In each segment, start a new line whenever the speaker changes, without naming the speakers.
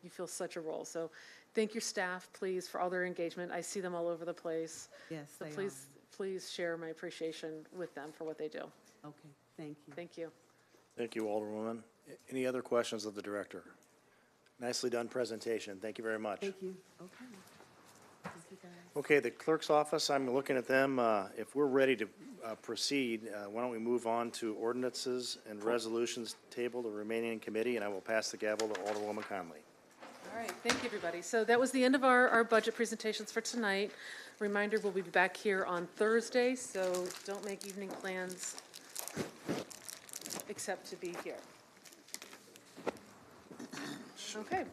fulfill such a role. So thank your staff, please, for all their engagement. I see them all over the place.
Yes,
So
they are.
please, please share my appreciation with them for what they do.
Okay, thank you.
Thank you.
Thank you, Alderwoman. A- Any other questions of the director? Nicely done presentation. Thank you very much.
Thank you. Okay. Thank you, guys.
Okay, the clerk's office, I'm looking at them. Uh, If we're ready to uh, proceed, uh, why don't we move on to ordinances and resolutions table, the remaining in committee, and I will pass the gavel to Alderwoman Conley.
All right, thank you, everybody. So that was the end of our, our budget presentations for tonight. Reminder, we'll be back here on Thursday, so don't make evening plans except to be here. Okay.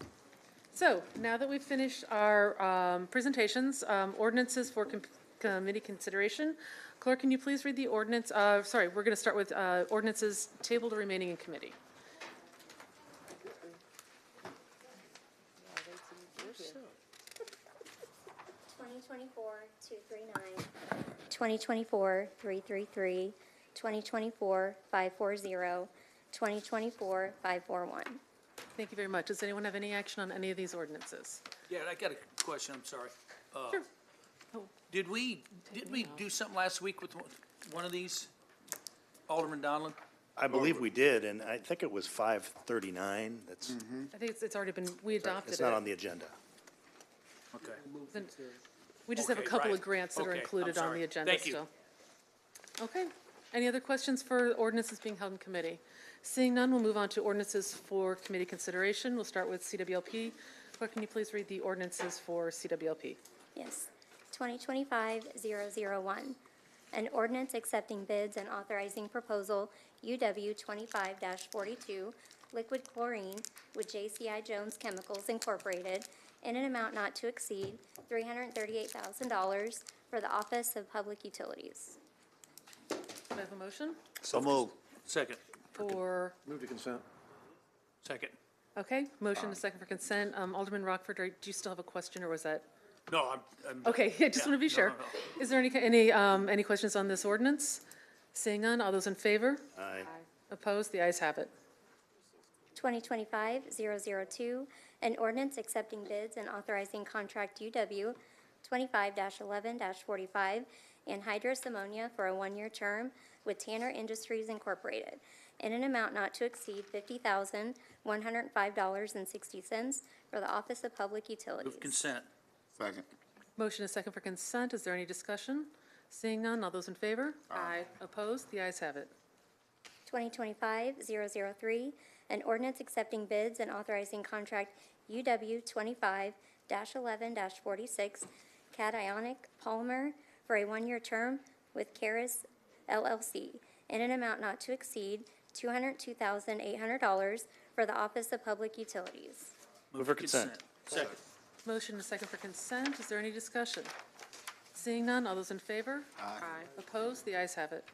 So now that we've finished our um, presentations, um, ordinances for com- committee consideration, clerk, can you please read the ordinance, uh, sorry, we're going to start with uh, ordinances tabled or remaining in committee.
Twenty twenty-four, two three nine. Twenty twenty-four, three three three. Twenty twenty-four, five four zero. Twenty twenty-four, five four one.
Thank you very much. Does anyone have any action on any of these ordinances?
Yeah, and I got a question, I'm sorry. Uh,
Sure. Oh.
Did we, did we do something last week with one- one of these? Alderman Donlin?
I believe we did, and I think it was 5:39. That's,
I think it's, it's already been, we adopted
it's not on
it.
the agenda.
Okay.
We just have a
Okay,
couple of
right.
grants that are
Okay, I'm
included on the
sorry.
agenda
Thank you.
still. Okay. Any other questions for ordinances being held in committee? Seeing none, we'll move on to ordinances for committee consideration. We'll start with CWLP. Clerk, can you please read the ordinances for CWLP?
Yes. Twenty twenty-five, zero zero one. An ordinance accepting bids and authorizing proposal UW twenty-five forty-two liquid chlorine with JCI Jones Chemicals Incorporated in an amount not to exceed three hundred and thirty-eight thousand dollars for the Office of Public Utilities.
Do I have a motion?
So move.
Second,
Or,
Move to consent.
second.
okay, motion and a second for consent. Um, Alderman Rockford, are- do you still have a question or was that?
No, I'm, I'm.
Okay, I just
Yeah,
want to be
no,
sure.
no, no.
Is there any, any, um, any questions on this ordinance? Seeing none, all those in favor?
Aye.
Opposed? The ayes have it.
2025-002, an ordinance accepting bids and authorizing contract UW 25-11-45 anhydrous ammonia for a one-year term with Tanner Industries Incorporated in an amount not to exceed $50,105.60 for the Office of Public Utilities.
Move consent.
Second.
Motion is second for consent. Is there any discussion? Seeing none, all those in favor? Aye. Opposed? The ayes have it.
2025-003, an ordinance accepting bids and authorizing contract UW 25-11-46 cationic polymer for a one-year term with Caris LLC in an amount not to exceed $202,800 for the Office of Public Utilities.
Move for consent.
Second,
Motion is second for consent. Is there any discussion? Seeing none, all those in favor? Aye. Opposed? The ayes have it.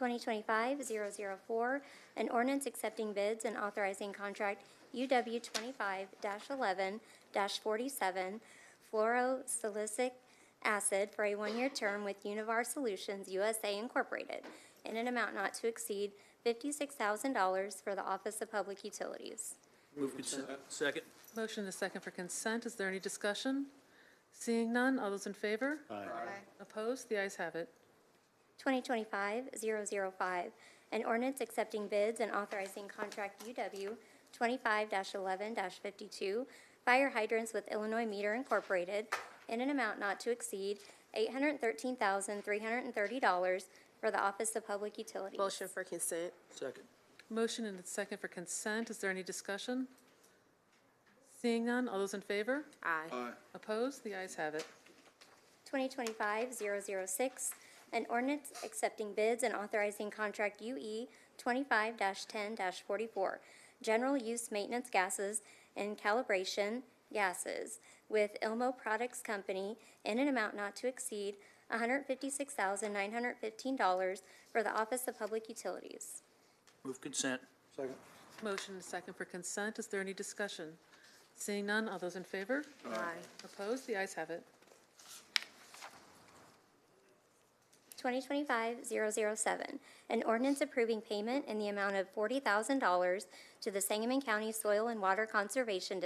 2025-004, an ordinance accepting bids and authorizing contract UW 25-11-47 fluorosilicic acid for a one-year term with Univar Solutions USA Incorporated in an amount not to exceed $56,000 for the Office of Public Utilities.
move consent. Second,
Motion is second for consent. Is there any discussion? Seeing none, all those in favor? Aye. Opposed? The ayes have it.
2025-005, an ordinance accepting bids and authorizing contract UW 25-11-52 fire hydrants with Illinois Meter Incorporated in an amount not to exceed $813,330 for the Office of Public Utilities.
Motion for consent.
second.
Motion and a second for consent. Is there any discussion? Seeing none, all those in favor?
Aye.
Opposed? The ayes have it.
2025-006, an ordinance accepting bids and authorizing contract E UE 25-10-44, general use maintenance gases and calibration gases with Ilmo Products Company in an amount not to exceed $156,915 for the Office of Public Utilities.
Move consent.
Second.
Motion and second for consent. Is there any discussion? Seeing none, all those in favor?
Aye.
Opposed? The ayes have it.
2025-007, an ordinance approving payment in the amount of $40,000 to the Sangamon County Soil and Water Conservation